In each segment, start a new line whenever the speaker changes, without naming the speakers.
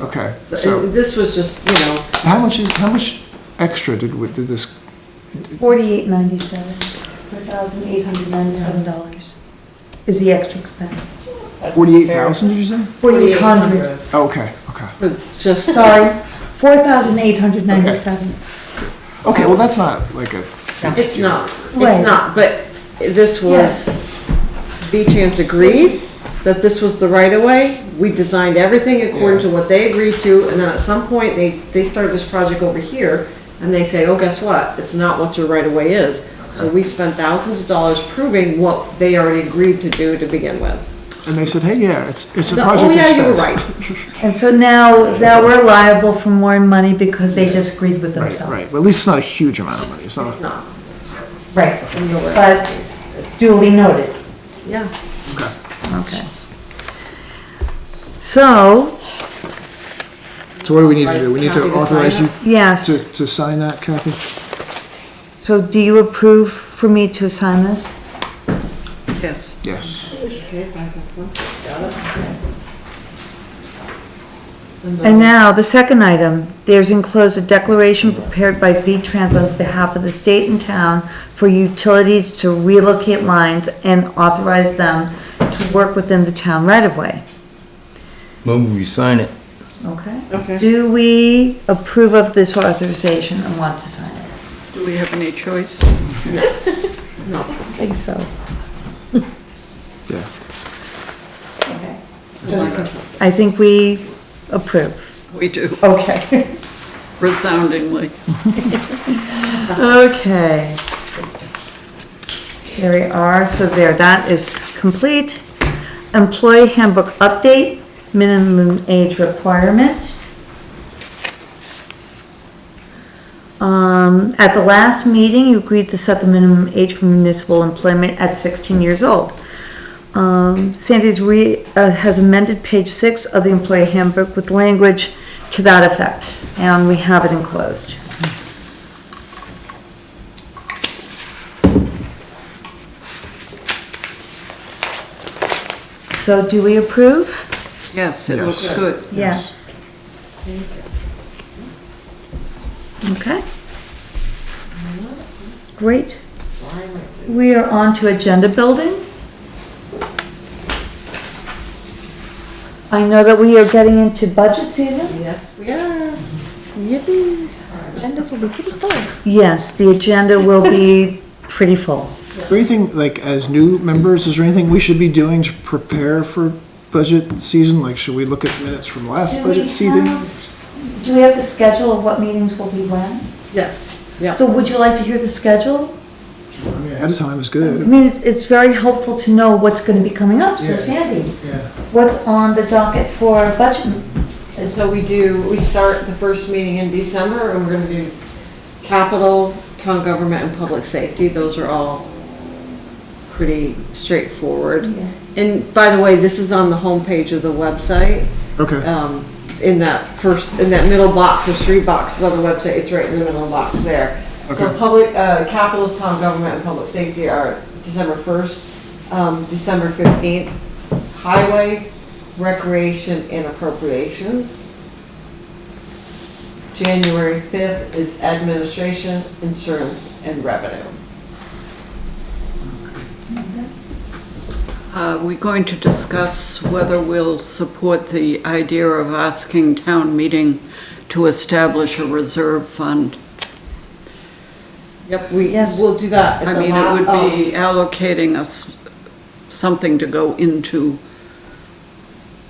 Okay,
So, uh,
so,
This was just, you know.
how much is, how much extra did, we- did this,
Forty-eight ninety-seven, one thousand eight hundred ninety-seven dollars is the extra expense.
forty-eight thousand, did you say? Oh,
Forty-eight hundred,
Okay, okay.
It's just.
sorry, four thousand eight hundred ninety-seven.
Okay, well, that's not like a,
It's not,
Right.
it's not, but this was, V-Trans agreed that this was the right of way. We designed everything according to what they agreed to, and then at some point, they, they started this project over here, and they say, oh, guess what? It's not what your right of way is. So we spent thousands of dollars proving what they already agreed to do to begin with.
and they said, hey, yeah, it's, it's a
No, Oh
project
yeah, you were
expense.
right.
And so now, now we're liable for more money because they just agreed with
Right,
themselves.
right, but at least it's not a huge amount of money, it's not,
It's not,
Right.
and you're right.
But duly noted.
Yeah.
okay.
Okay. So,
So what do we need to do? We need to
Copy to sign
authorize you
it?
to,
yes,
to sign that, Kathy?
so do you approve for me to sign this?
Yes.
Yes.
And now, the second item, there's enclosed a declaration prepared by V-Trans on behalf of the state and town for utilities to relocate lines and authorize them to work within the town right-of-way.
Move, we sign it.
Okay.
Okay.
Do we approve of this authorization and want to sign it?
Do we have any choice?
I think so.
Yeah.
Okay. I think we approve.
We do,
Okay.
resoundingly.
Okay. There we are, so there, that is complete. Employee handbook update, minimum age requirement. Um, at the last meeting, you agreed to set the minimum age for municipal employment at sixteen years old. Um, Sandy's re, uh, has amended page six of the employee handbook with language to that effect, and we have it enclosed. So do we approve?
Yes, it
Yes.
looks good.
Yes. Okay. Great. We are on to agenda building. I know that we are getting into budget season.
Yes, we are. Yippee. Agendas will be pretty full.
Yes, the agenda will be pretty full.
Is there anything, like, as new members, is there anything we should be doing to prepare for budget season? Like, should we look at minutes from last
Do we
budget season?
have- Do we have the schedule of what meetings will be when?
Yes, yeah.
So would you like to hear the schedule?
I mean, ahead of time is
Um,
I
good.
mean, it's, it's very helpful to know what's gonna be coming up, so
Yeah.
Sandy,
Yeah.
what's on the docket for budget?
And so we do, we start the first meeting in December, and we're gonna do capital, town government, and public safety. Those are all pretty straightforward. And by the way, this is on the homepage of the website.
Okay,
Um, in that first, in that middle box, there's three boxes on the website, it's right in the middle box there. So
Okay.
public, uh, capital, town government, and public safety are December first, um, December fifteenth, highway, recreation, and appropriations. January fifth is administration, insurance, and revenue.
Are Uh, we going to discuss whether we'll support the idea of asking town meeting to establish a reserve fund?
Yep, we,
Yes.
we'll do that
I
at the
mean, it
la-
would
um,
be allocating us something to go into,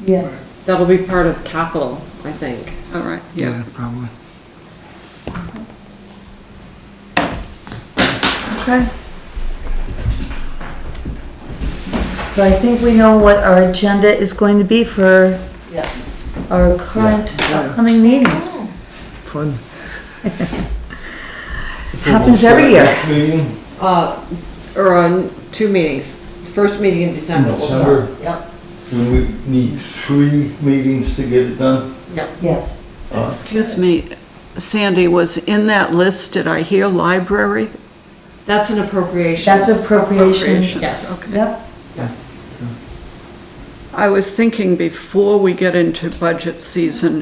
Yes.
That'll be part of capital, I think.
all right, yeah.
yeah, probably.
Okay. So I think we know what our agenda is going to be for
Yes.
our current
Yeah.
upcoming meetings.
Fun.
Happens every year.
Next meeting,
Uh, or on two meetings. First meeting in December we'll start. Yep,
do we need three meetings to get it done?
yep.
Yes.
Oh,
Excuse me, Sandy, was in that list, did I hear library?
That's an appropriation.
That's appropriations.
Yes.
Okay.
Yep,
I was thinking before we get into budget season,